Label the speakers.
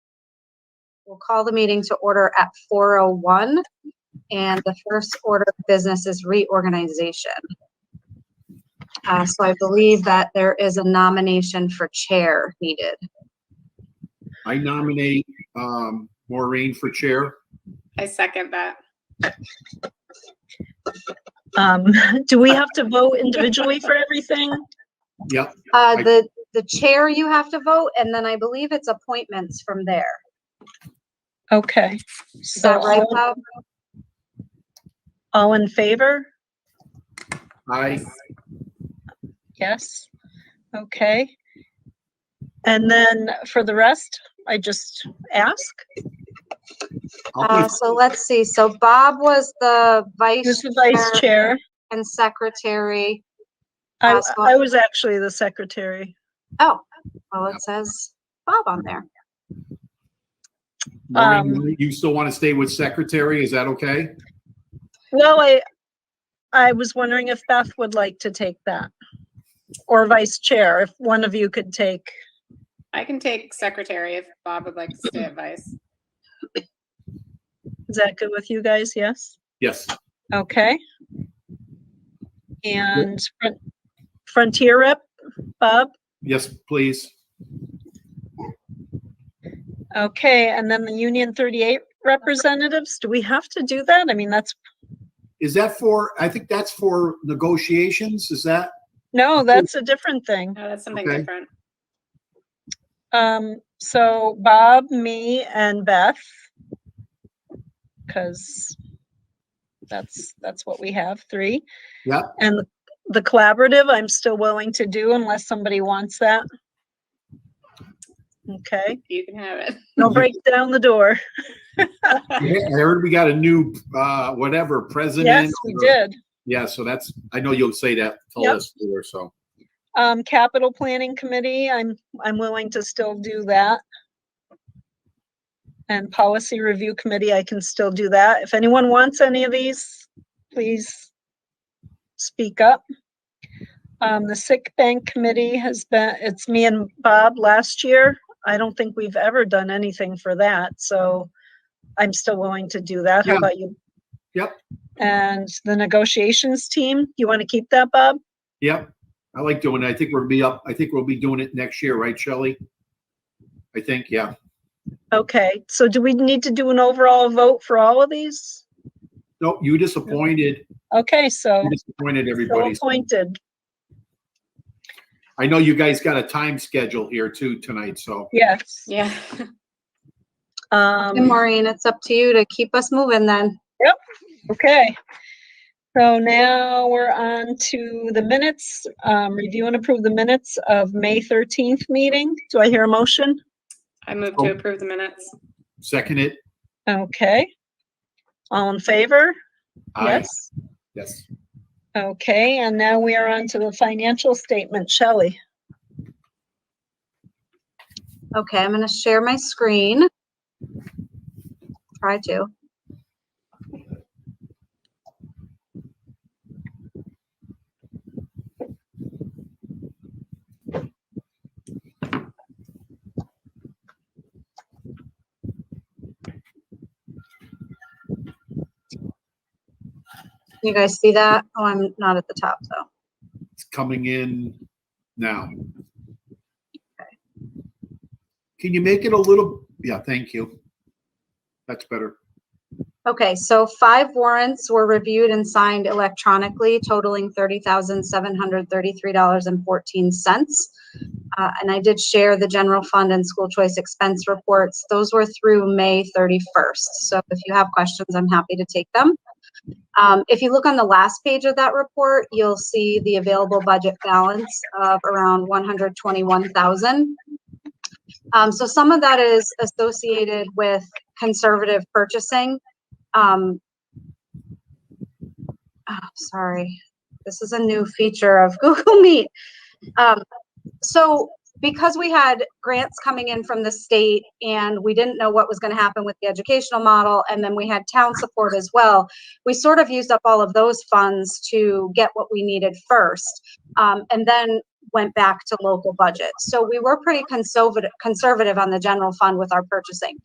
Speaker 1: We'll call the meeting to order at 4:01. And the first order of business is reorganization. Uh, So I believe that there is a nomination for chair needed.
Speaker 2: I nominate um, Maureen for chair.
Speaker 3: I second that.
Speaker 4: Um, do we have to vote individually for everything?
Speaker 2: Yep,
Speaker 1: Uh, The, the chair you have to vote, and then I believe it's appointments from there.
Speaker 4: Okay.
Speaker 1: Is that
Speaker 4: So
Speaker 1: right,
Speaker 4: all-
Speaker 1: Bob?
Speaker 4: all in favor?
Speaker 2: I,
Speaker 4: Yes. Okay. And then for the rest, I just ask,
Speaker 2: I'll
Speaker 1: Uh,
Speaker 2: put-
Speaker 1: So let's see. So Bob was the
Speaker 4: who's
Speaker 1: vice
Speaker 4: the vice chair?
Speaker 1: and secretary.
Speaker 4: I,
Speaker 1: Awesome.
Speaker 4: I was actually the secretary.
Speaker 1: Oh, well, it says Bob on there. um,
Speaker 2: Maureen, you still want to stay with secretary? Is that okay?
Speaker 4: Well, I, I was wondering if Beth would like to take that. Or vice chair, if one of you could take,
Speaker 3: I can take secretary if Bob would like to stay at vice.
Speaker 4: is that good with you guys? Yes?
Speaker 2: Yes.
Speaker 4: Okay. And Fron- Frontier Rep, Bob?
Speaker 2: Yes, please.
Speaker 4: Okay, and then the Union 38 representatives, do we have to do that? I mean, that's,
Speaker 2: Is that for, I think that's for negotiations, is that?
Speaker 4: no, that's a different thing.
Speaker 3: No, that's something
Speaker 2: Okay.
Speaker 3: different.
Speaker 4: Um, so Bob, me, and Beth. Because that's, that's what we have, three.
Speaker 2: Yep.
Speaker 4: And the- the collaborative, I'm still willing to do unless somebody wants that. Okay,
Speaker 3: You can have it.
Speaker 4: don't break down the door.
Speaker 2: Yeah, I heard we got a new, uh, whatever, president.
Speaker 4: Yes, we
Speaker 2: or-
Speaker 4: did.
Speaker 2: Yeah, so that's, I know you'll say that, tell
Speaker 4: Yep.
Speaker 2: us later, so.
Speaker 4: Um, capital planning committee, I'm, I'm willing to still do that. And policy review committee, I can still do that. If anyone wants any of these, please speak up. Um, the sick bank committee has been, it's me and Bob last year. I don't think we've ever done anything for that, so I'm still willing to do that. How
Speaker 2: Yeah.
Speaker 4: about you?
Speaker 2: Yep.
Speaker 4: And the negotiations team, you want to keep that, Bob?
Speaker 2: Yep, I like doing it. I think we'll be up, I think we'll be doing it next year, right, Shelley? I think, yeah.
Speaker 4: Okay, so do we need to do an overall vote for all of these?
Speaker 2: No, you disappointed,
Speaker 4: Okay, so
Speaker 2: you disappointed
Speaker 4: so
Speaker 2: everybody. so-
Speaker 4: appointed,
Speaker 2: I know you guys got a time schedule here too tonight, so
Speaker 4: yes.
Speaker 3: Yeah.
Speaker 1: And
Speaker 4: Um,
Speaker 1: Maureen, it's up to you to keep us moving then.
Speaker 4: okay. So now we're on to the minutes, um, review and approve the minutes of May thirteenth meeting. Do I hear a motion?
Speaker 3: I move to approve the minutes.
Speaker 2: second it.
Speaker 4: Okay. All in favor?
Speaker 2: Aye.
Speaker 4: Yes.
Speaker 2: Yes.
Speaker 4: Okay, and now we are on to the financial statement. Shelley?
Speaker 1: Okay, I'm going to share my screen. Try to. You guys see that? Oh, I'm not at the top though.
Speaker 2: It's coming in now. Can you make it a little, yeah, thank you. That's better.
Speaker 1: Okay, so five warrants were reviewed and signed electronically totaling thirty thousand seven hundred thirty-three dollars and fourteen cents. Uh, and I did share the general fund and school choice expense reports. Those were through May thirty-first. So if you have questions, I'm happy to take them. Um, if you look on the last page of that report, you'll see the available budget balance of around one hundred twenty-one thousand. Um, so some of that is associated with conservative purchasing um, ah, sorry, this is a new feature of Google Meet. Um, so because we had grants coming in from the state and we didn't know what was going to happen with the educational model, and then we had town support as well, we sort of used up all of those funds to get what we needed first, um, and then went back to local budget. So we were pretty conservative, conservative on the general fund with our purchasing.